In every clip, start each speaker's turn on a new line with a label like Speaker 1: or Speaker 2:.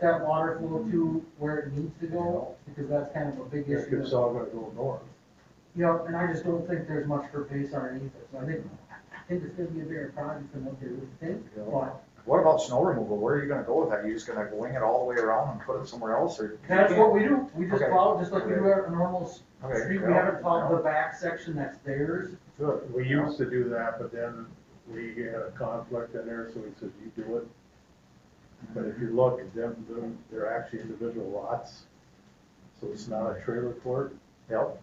Speaker 1: that water flow to where it needs to go, because that's kind of a big
Speaker 2: It's
Speaker 1: issue.
Speaker 2: it's all gonna go north.
Speaker 1: Yep, and I just don't think there's much for base underneath it, so I think, I think it's gonna be a bigger project than what they would think,
Speaker 2: Yeah.
Speaker 1: but
Speaker 3: What about snow removal? Where are you gonna go with that? You just gonna wing it all the way around and put it somewhere else or?
Speaker 1: that's what we do, we just
Speaker 3: Okay.
Speaker 1: plow, just like we do our normal s-
Speaker 3: Okay,
Speaker 1: street, we
Speaker 3: yeah,
Speaker 1: haven't plowed
Speaker 3: yeah.
Speaker 1: the back section that's theirs.
Speaker 2: Good. We used to do that, but then we had a conflict in there, so we said, you do it. But if you look, them, them- they're actually individual lots, so it's not a trailer court.
Speaker 3: Yep.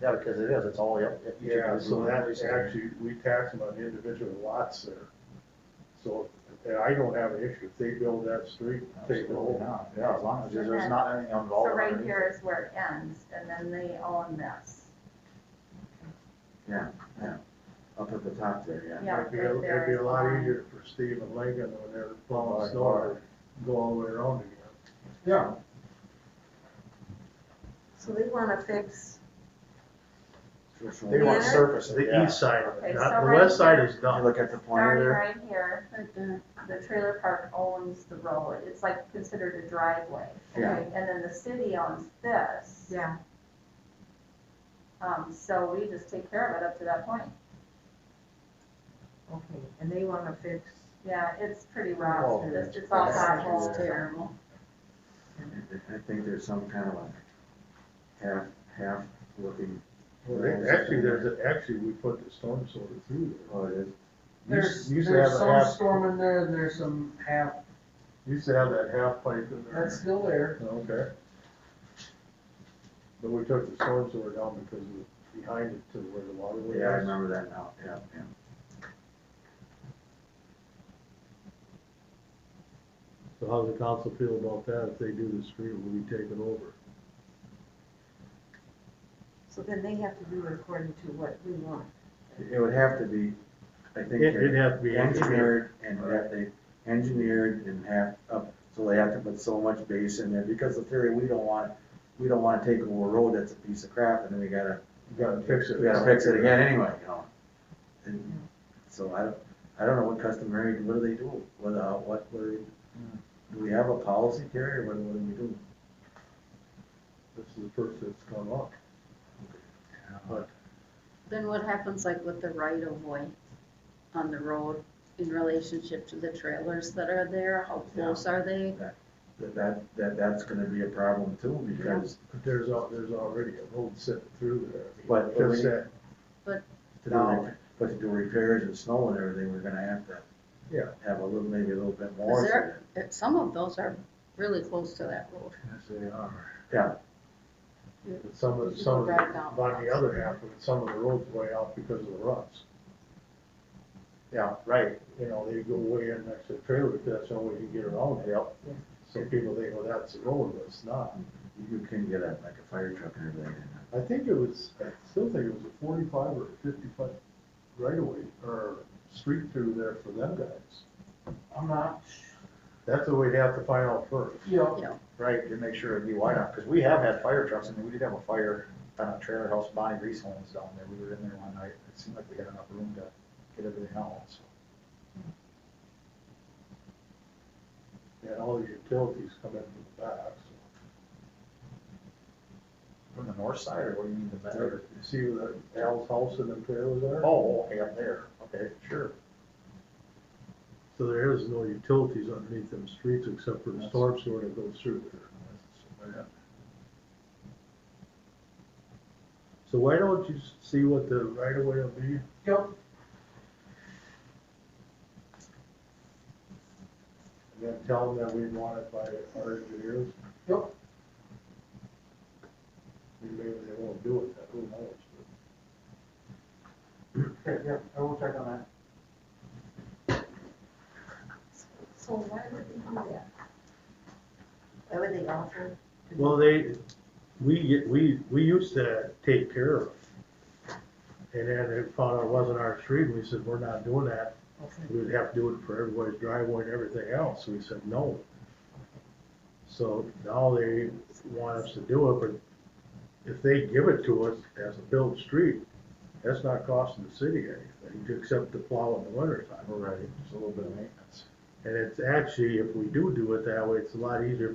Speaker 3: Yeah, because it is, it's all, yep. if you
Speaker 2: Yeah,
Speaker 3: do
Speaker 2: so that
Speaker 3: removal,
Speaker 2: is actually, we tax them on individual lots there. So, and I don't have an issue, if they build that street, they
Speaker 3: Absolutely
Speaker 2: go.
Speaker 3: not. Yeah, as long as there's- there's
Speaker 4: Okay.
Speaker 3: not anything
Speaker 4: So
Speaker 3: involved.
Speaker 4: right
Speaker 3: underneath.
Speaker 4: here is where it ends, and then they own this.
Speaker 5: up at the top there, yeah.
Speaker 4: Yeah,
Speaker 2: It'd be,
Speaker 4: right there
Speaker 2: it'd be
Speaker 4: is
Speaker 2: a lot
Speaker 4: mine.
Speaker 2: easier for Steve and Lincoln when they're
Speaker 3: Right,
Speaker 2: plowing snow, to go all the way around again.
Speaker 1: Yeah.
Speaker 6: So they wanna fix,
Speaker 3: They want
Speaker 6: Yeah.
Speaker 3: surface it,
Speaker 2: The
Speaker 3: yeah.
Speaker 2: east side of
Speaker 4: Okay,
Speaker 2: it, not,
Speaker 4: so
Speaker 2: the
Speaker 4: right
Speaker 2: west side
Speaker 4: here-
Speaker 2: is done.
Speaker 5: You look at the pointer
Speaker 4: Starting
Speaker 5: there.
Speaker 4: right here, the trailer park owns the road, it's like considered a driveway.
Speaker 5: Yeah.
Speaker 4: okay? And then the city owns this,
Speaker 6: yeah,
Speaker 4: um, so we just take care of it up to that point.
Speaker 6: okay, and they wanna fix,
Speaker 4: Yeah, it's pretty rough
Speaker 3: Oh,
Speaker 4: through this, it's all
Speaker 5: that's
Speaker 4: potholes.
Speaker 5: just
Speaker 6: terrible.
Speaker 5: I think there's some kind of a half, half looking,
Speaker 2: Well, they- Actually, there's, a- actually, we put the storm sewer through
Speaker 5: oh, it is,
Speaker 2: there.
Speaker 1: There's,
Speaker 2: Used- Used to
Speaker 1: there's
Speaker 2: have a
Speaker 1: some
Speaker 2: half,
Speaker 1: storm in there, and there's some half,
Speaker 2: used to have that half pipe in there.
Speaker 1: that's still there.
Speaker 2: Okay. But we took the storm sewer down because it was behind it to where the water
Speaker 3: Oh,
Speaker 2: was.
Speaker 5: yeah, I remember that now, yeah, yeah.
Speaker 2: So how does the council feel about that? If they do the street, will we take it over?
Speaker 6: so then they have to do it according to what we want.
Speaker 5: It would have to be, I think,
Speaker 2: It- it'd have to be
Speaker 5: engineered and have they, engineered and have, up, so they have to put so much base in there, because the theory, we don't want, we don't wanna take over a road that's a piece of crap, and then we gotta,
Speaker 2: You gotta fix it.
Speaker 5: we gotta fix it again anyway, you know? And so I, don't- I don't know what customary, what do they do, what, uh, what, what, do they- do we have a policy, Terry, or what, what do we do?
Speaker 2: This is the first that's come up. But
Speaker 7: Then what happens like with the right of way on the road in relationship to the trailers that are there? How close are they?
Speaker 5: That, that, that, that's gonna be a problem too, because
Speaker 2: there's, al- there's already a road set through there.
Speaker 5: But-
Speaker 2: Just that,
Speaker 5: to do, rep- but to do repairs and snow and everything, we're gonna have to
Speaker 2: Yeah.
Speaker 5: have a little, maybe a little bit
Speaker 7: Is
Speaker 5: more.
Speaker 7: there, if some of those are really close to that road.
Speaker 2: Yes, they are.
Speaker 5: Yeah.
Speaker 2: Some of, some of,
Speaker 7: Drive down.
Speaker 2: the- on the other half, of it, some of the roads way out because of the ruts.
Speaker 3: Yeah, right,
Speaker 2: You know, they go way in next to the trailer, but that's the only way you can get around it.
Speaker 3: yep.
Speaker 2: So people think, well, that's the road, but it's not.
Speaker 5: You can get a, like a fire truck and uh, everything.
Speaker 2: I think it was, I still think it was a forty-five or fifty-five right away, or street through there for them guys.
Speaker 1: I'm not,
Speaker 2: That's what we'd have to find out first.
Speaker 1: you know,
Speaker 3: Right, to make sure it'd be wide enough, because we have had fire trucks, and we did have a fire on a trailer house, Bonnie Reese homes down there, we were in there one night, it seemed like we had enough room to get everything out, so.
Speaker 2: And all the utilities come in from the back, so.
Speaker 3: From the north side, or what do you mean the back?
Speaker 2: There, You see where the Al's house and them trailers are?
Speaker 3: Oh, okay, up there, okay, sure.
Speaker 2: So there is no utilities underneath them streets except for
Speaker 3: the
Speaker 2: storm sewer that goes through there. So why don't you see what the right of way will be?
Speaker 1: yep,
Speaker 2: And then tell them that we want it by our engineers?
Speaker 1: Yep.
Speaker 2: And Maybe they won't do it, that who knows?
Speaker 1: okay, yep, I will check on that.
Speaker 6: So why would they do that? Why would they offer? to do
Speaker 2: Well, they, we get, we, we used to take care of it. And then they found out it wasn't our street, and we said, we're not doing that,
Speaker 1: Okay.
Speaker 2: we'd have to do it for everybody's driveway and everything else, we said, no. So now they want us to do it, but if they give it to us as a built street, that's not costing the city anything, except the plow in the winter time.
Speaker 3: Right, it's a little bit of maintenance.
Speaker 2: And it's actually, if we do do it that way, it's a lot easier